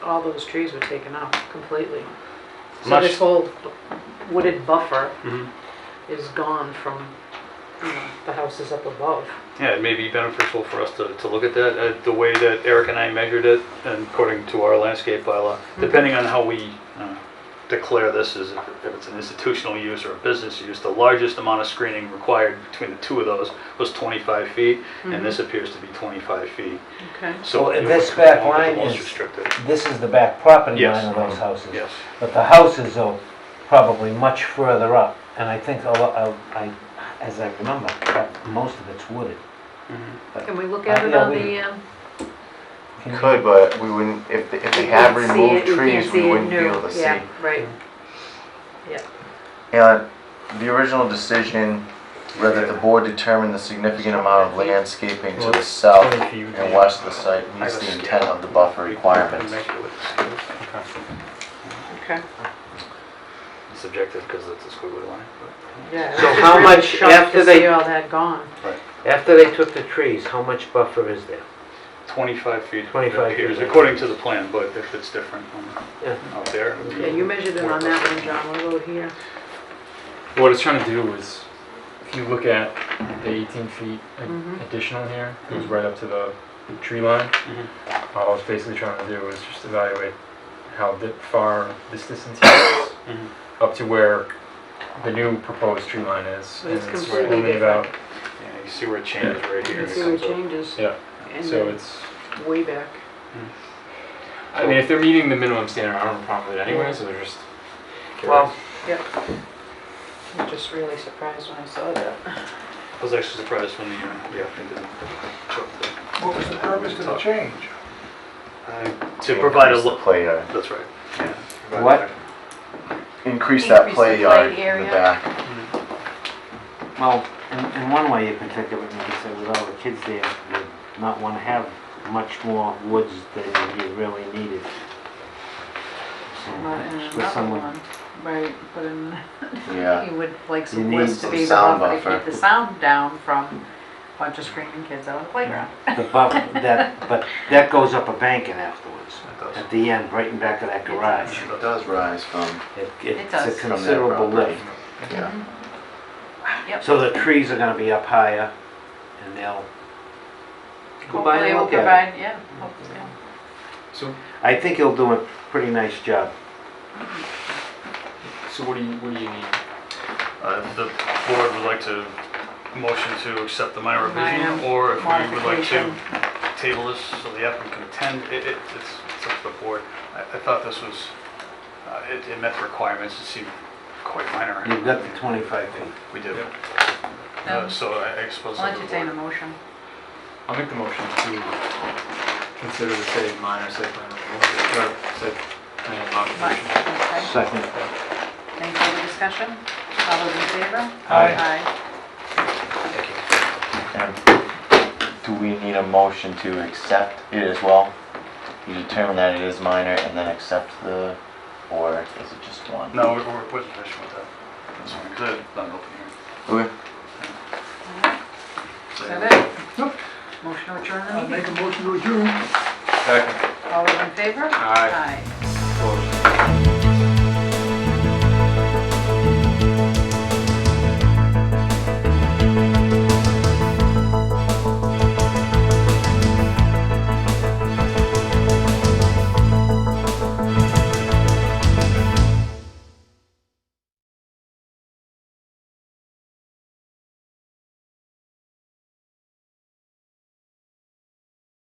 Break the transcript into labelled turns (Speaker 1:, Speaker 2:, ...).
Speaker 1: all those trees were taken out completely. So
Speaker 2: Much-
Speaker 1: this whole wooded buffer
Speaker 2: Mhm.
Speaker 1: is gone from, you know, the houses up above.
Speaker 2: Yeah, it may be beneficial for us to, to look at that, uh, the way that Eric and I measured it, and according to our landscape bylaw, depending on how we uh, declare this as, if if it's an institutional use or a business use, the largest amount of screening required between the two of those was 25 feet, and this appears to be 25 feet.
Speaker 1: Okay.
Speaker 2: So
Speaker 3: Well,
Speaker 2: it
Speaker 3: this
Speaker 2: would
Speaker 3: back
Speaker 2: belong to
Speaker 3: line
Speaker 2: the most
Speaker 3: is-
Speaker 2: restricted.
Speaker 3: This is the back property
Speaker 2: Yes.
Speaker 3: line of those houses.
Speaker 2: Yes.
Speaker 3: But the houses are probably much further up, and I think, a lo- I- I, as I remember, most of it's wooded.
Speaker 1: Can we look
Speaker 3: Uh,
Speaker 1: at it
Speaker 3: yeah,
Speaker 1: on
Speaker 3: we-
Speaker 1: the, um,
Speaker 3: Can you-
Speaker 4: Could, but we wouldn't, if, they- if they
Speaker 1: you
Speaker 4: had
Speaker 1: can't see
Speaker 4: removed
Speaker 1: it, you can't
Speaker 4: trees,
Speaker 1: see
Speaker 4: we
Speaker 1: it
Speaker 4: wouldn't be
Speaker 1: new.
Speaker 4: able to see.
Speaker 1: Yeah, right.
Speaker 4: And the original decision read that the board determined the significant amount of landscaping to the south and west of the site meets the intent of the buffer requirements.
Speaker 2: Okay.
Speaker 1: Okay.
Speaker 2: Subjective, because it's a squiggly line. but-
Speaker 1: Yeah.
Speaker 3: So
Speaker 1: I was
Speaker 3: how
Speaker 1: really
Speaker 3: much
Speaker 1: shocked
Speaker 3: after
Speaker 1: to
Speaker 3: they-
Speaker 1: see all that gone.
Speaker 3: After they took the trees, how much buffer is there?
Speaker 2: 25 feet.
Speaker 3: 25 feet.
Speaker 2: appears, According to the plan, but if it's different
Speaker 3: Yeah.
Speaker 2: um, out there. it would be-
Speaker 1: Yeah, you measured it on that one, John, what about here?
Speaker 5: What it's trying to do is, if you look at the 18 feet a-
Speaker 1: Mhm.
Speaker 5: additional here, it goes right up to the tree line.
Speaker 2: Mhm.
Speaker 5: All I was basically trying to do was just evaluate how di- far this distance here is
Speaker 2: Mhm.
Speaker 5: up to where the new proposed tree line is.
Speaker 1: But
Speaker 5: and
Speaker 1: it's
Speaker 5: right
Speaker 1: completely
Speaker 5: only about-
Speaker 2: Yeah, You see where it changes right
Speaker 1: You
Speaker 2: here.
Speaker 1: can
Speaker 2: it
Speaker 1: see where it
Speaker 2: comes up.
Speaker 1: changes.
Speaker 5: Yeah,
Speaker 1: And
Speaker 5: So
Speaker 1: then
Speaker 5: it's,
Speaker 1: way back.
Speaker 5: I mean, if they're meeting the minimum standard, I don't have a problem with it anyway, so they're just.
Speaker 3: Well,
Speaker 1: I'm just really surprised when I saw that.
Speaker 2: I was actually surprised when the, uh, yeah, I did.
Speaker 6: What was the purpose of the change?
Speaker 2: To provide a
Speaker 4: Increase the
Speaker 2: look,
Speaker 4: Play yard,
Speaker 2: that's right. yeah, provide
Speaker 3: What?
Speaker 4: increase that
Speaker 1: Increase the
Speaker 4: play
Speaker 1: play
Speaker 4: yard in
Speaker 1: area.
Speaker 4: the back.
Speaker 3: well, in, in one way you can think of it, you can say with all the kids there, you not want to have much more woods than you really needed. So,
Speaker 1: Not in
Speaker 3: With
Speaker 1: another
Speaker 3: someone,
Speaker 1: one, right, but in,
Speaker 4: Yeah,
Speaker 1: you would like
Speaker 3: You
Speaker 1: some
Speaker 3: need
Speaker 1: woods to
Speaker 4: some
Speaker 1: be the
Speaker 4: sound
Speaker 1: buffer to keep
Speaker 4: buffer.
Speaker 1: the sound down from a bunch of screaming kids out on the playground.
Speaker 3: the buff, that, but that goes up a banking afterwards,
Speaker 2: It does.
Speaker 3: at the end, right in back of that garage.
Speaker 4: it does rise from,
Speaker 3: It-
Speaker 1: It
Speaker 3: It's
Speaker 1: does.
Speaker 3: a
Speaker 1: From
Speaker 4: that
Speaker 3: considerable
Speaker 4: property.
Speaker 3: lift.
Speaker 4: yeah.
Speaker 1: Mm-hmm. Yep.
Speaker 3: So the trees are gonna be up higher, and they'll go by
Speaker 1: Hopefully
Speaker 3: and
Speaker 1: will
Speaker 3: look at it.
Speaker 1: provide- Yeah, hopefully, yeah.
Speaker 5: So,
Speaker 3: I think he'll do a pretty nice job.
Speaker 5: so what do you, what do you need?
Speaker 2: Uh, if The board would like to motion to accept the minor revision,
Speaker 1: Minor
Speaker 2: or if we would like to
Speaker 1: modification.
Speaker 2: table this so the applicant can attend, it, it- it's, it's up to the board. I, I thought this was, uh, it, it met the requirements, it seemed quite minor.
Speaker 3: You've got the 25 feet.
Speaker 2: We did.
Speaker 5: Yep.
Speaker 1: Um,
Speaker 2: Uh, So I I suppose.
Speaker 1: I'll
Speaker 2: that the
Speaker 1: entertain a
Speaker 2: board-
Speaker 1: motion.
Speaker 5: I'll make the motion to consider the site minor site plan removal, or site plan
Speaker 1: Right,
Speaker 5: modification.
Speaker 1: okay.
Speaker 3: Second.
Speaker 1: Any further discussion? All those in favor?
Speaker 6: Aye.
Speaker 1: Aye.
Speaker 4: And Do we need a motion to accept it as well? You determine that it is minor and then accept the, or is it just one?
Speaker 2: No, we're, we're we're finished with that. That's fine, 'cause it's not an open hearing.
Speaker 4: Okay.
Speaker 1: Is that it? Motion to adjourn the
Speaker 6: I'll
Speaker 1: meeting.
Speaker 6: make a motion to adjourn.
Speaker 1: All those in favor?
Speaker 5: Aye.
Speaker 1: Aye.